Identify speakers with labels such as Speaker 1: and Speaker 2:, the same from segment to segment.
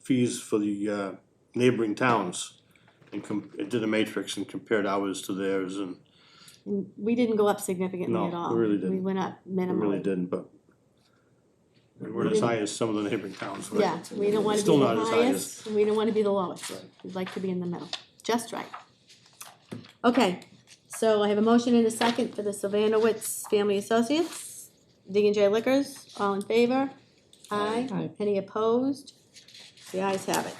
Speaker 1: fees for the uh, neighboring towns. And com- it did a matrix and compared ours to theirs and
Speaker 2: And we didn't go up significantly
Speaker 1: No,
Speaker 2: at
Speaker 1: we
Speaker 2: all.
Speaker 1: really didn't.
Speaker 2: We went up
Speaker 1: we really
Speaker 2: minimally.
Speaker 1: didn't, but we weren't as high as some of the neighboring towns. but-
Speaker 2: Yeah, we don't wanna be
Speaker 1: Still
Speaker 2: the
Speaker 1: not as high as-
Speaker 2: highest, and we don't wanna be the lowest, we'd like to be in the middle, just right. Okay, so I have a motion and a second for the Sylvanowitz Family Associates, D and J Liquors, all in favor? Aye,
Speaker 3: Aye.
Speaker 2: any opposed? The ayes have it.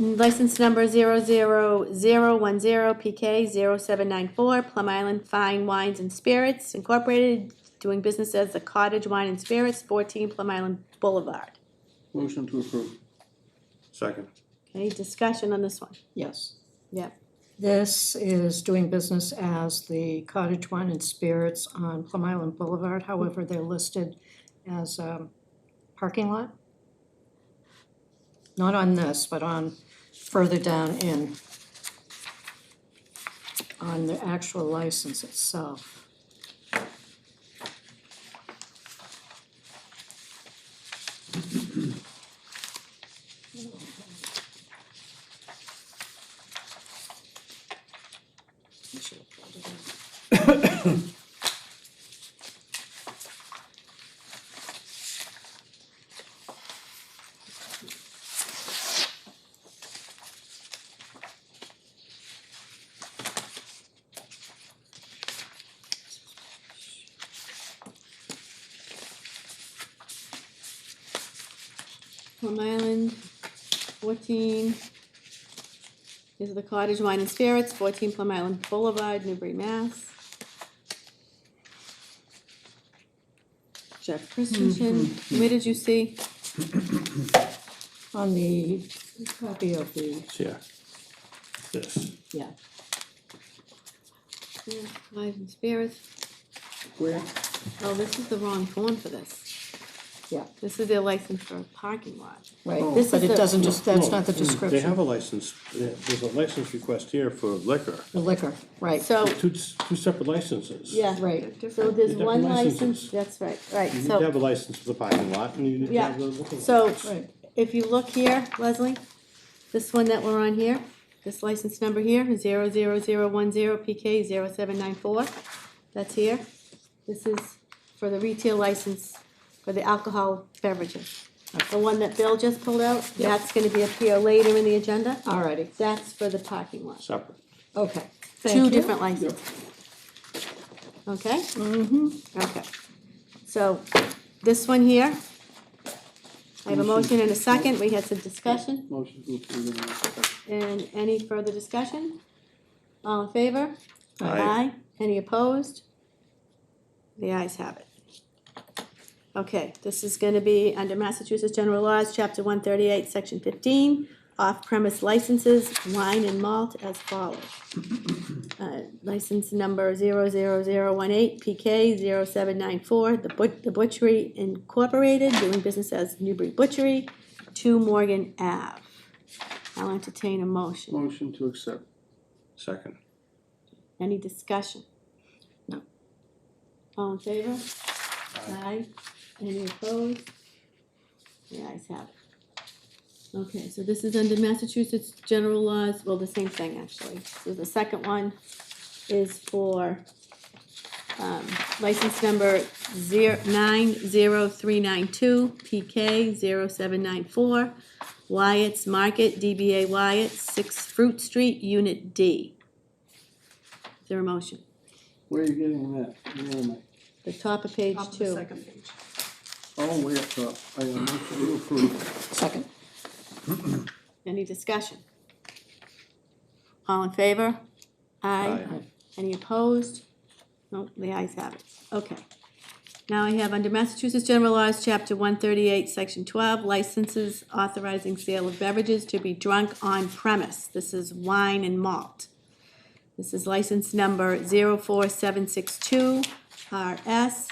Speaker 2: License number zero zero zero one zero PK zero seven nine four, Plum Island Fine Wines and Spirits Incorporated, doing business as the Cottage Wine and Spirits, fourteen Plum Island Boulevard.
Speaker 4: Motion to approve.
Speaker 1: Second,
Speaker 2: Okay, discussion on this one?
Speaker 4: Yes.
Speaker 2: Yep.
Speaker 3: This is doing business as the Cottage Wine and Spirits on Plum Island Boulevard. However, they're listed as a parking lot. Not on this, but on further down in, on the actual license itself. I should have pulled it out.
Speaker 2: Plum Island, fourteen. This is the Cottage Wine and Spirits, fourteen Plum Island Boulevard, Newbury, Mass. Jeff Christensen, where did you see?
Speaker 3: On the copy of the,
Speaker 1: yeah. This,
Speaker 3: yeah,
Speaker 2: Yeah, Wines and Spirits,
Speaker 4: Where?
Speaker 2: oh, this is the wrong form for this.
Speaker 3: yeah,
Speaker 2: This is their license for a parking lot.
Speaker 3: right.
Speaker 4: Oh.
Speaker 2: This
Speaker 3: But
Speaker 2: is
Speaker 3: it
Speaker 2: the-
Speaker 3: doesn't just, that's
Speaker 1: No,
Speaker 3: not the
Speaker 1: Hmm. They
Speaker 3: description.
Speaker 1: have a license, there- there's a license request here for liquor,
Speaker 3: The liquor, right.
Speaker 2: So,
Speaker 1: two, two separate licenses.
Speaker 2: Oh. yeah,
Speaker 3: Right.
Speaker 2: so there's
Speaker 1: Different
Speaker 2: one
Speaker 1: licenses.
Speaker 2: license, that's right, right,
Speaker 1: You need
Speaker 2: so.
Speaker 1: to have a license for the parking lot and you need to
Speaker 2: Yeah.
Speaker 1: have the liquor.
Speaker 2: So
Speaker 3: Right.
Speaker 2: if you look here, Leslie, this one that we're on here, this license number here, zero zero zero one zero PK zero seven nine four, that's here. This is for the retail license for the alcohol beverages. The one that Bill just pulled out, that's gonna be up here later in the agenda.
Speaker 3: Alrighty,
Speaker 2: That's for the parking lot.
Speaker 1: Separate.
Speaker 3: okay. Thank
Speaker 2: Two
Speaker 3: you.
Speaker 2: different licenses. Okay? Okay. Mm-hmm. So, this one here, I have a motion and a second, we had some discussion,
Speaker 4: Motion to approve in a second.
Speaker 2: and any further discussion? All in favor?
Speaker 1: Aye.
Speaker 2: Any opposed? The ayes have it. Okay, this is gonna be under Massachusetts General Laws, Chapter one thirty-eight, Section fifteen, off-premise licenses, wine and malt as follows. Uh, License number zero zero zero one eight, PK zero seven nine four, The But- The Butchery Incorporated, doing business as Newbury Butchery, two Morgan Ave. I'll entertain a motion.
Speaker 4: Motion to accept.
Speaker 1: Second.
Speaker 2: Any discussion?
Speaker 3: No.
Speaker 2: All in favor? Aye. Any opposed? The ayes have it. Okay, so this is under Massachusetts general laws, well, the same thing, actually. So the second one is for, um, license number zero, nine, zero, three, nine, two, PK, zero, seven, nine, four, Wyatt's Market, DBA Wyatt, six Fruit Street, Unit D. Is there a motion?
Speaker 4: Where are you getting that? Where am I?
Speaker 2: The top of page
Speaker 5: Top of the
Speaker 2: two.
Speaker 5: second page.
Speaker 4: Oh, way up top. I am motion to approve.
Speaker 3: Second,
Speaker 2: Any discussion? All in favor? Aye.
Speaker 3: Aye.
Speaker 2: Any opposed? No, the ayes have it. Okay. Now I have under Massachusetts General Laws, Chapter one thirty-eight, Section twelve, licenses authorizing sale of beverages to be drunk on premise. This is wine and malt. This is license number zero four seven six two RS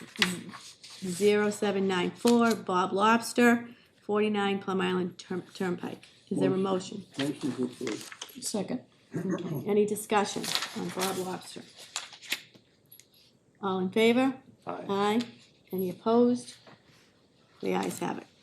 Speaker 2: 0794 Bob Lobster, 49 Plum Island Turn- Turnpike. Is there a motion?
Speaker 4: Motion to approve.
Speaker 3: second,
Speaker 2: Any discussion on Bob Lobster? All in favor?
Speaker 1: Aye.
Speaker 2: Aye. Any opposed? The ayes have it.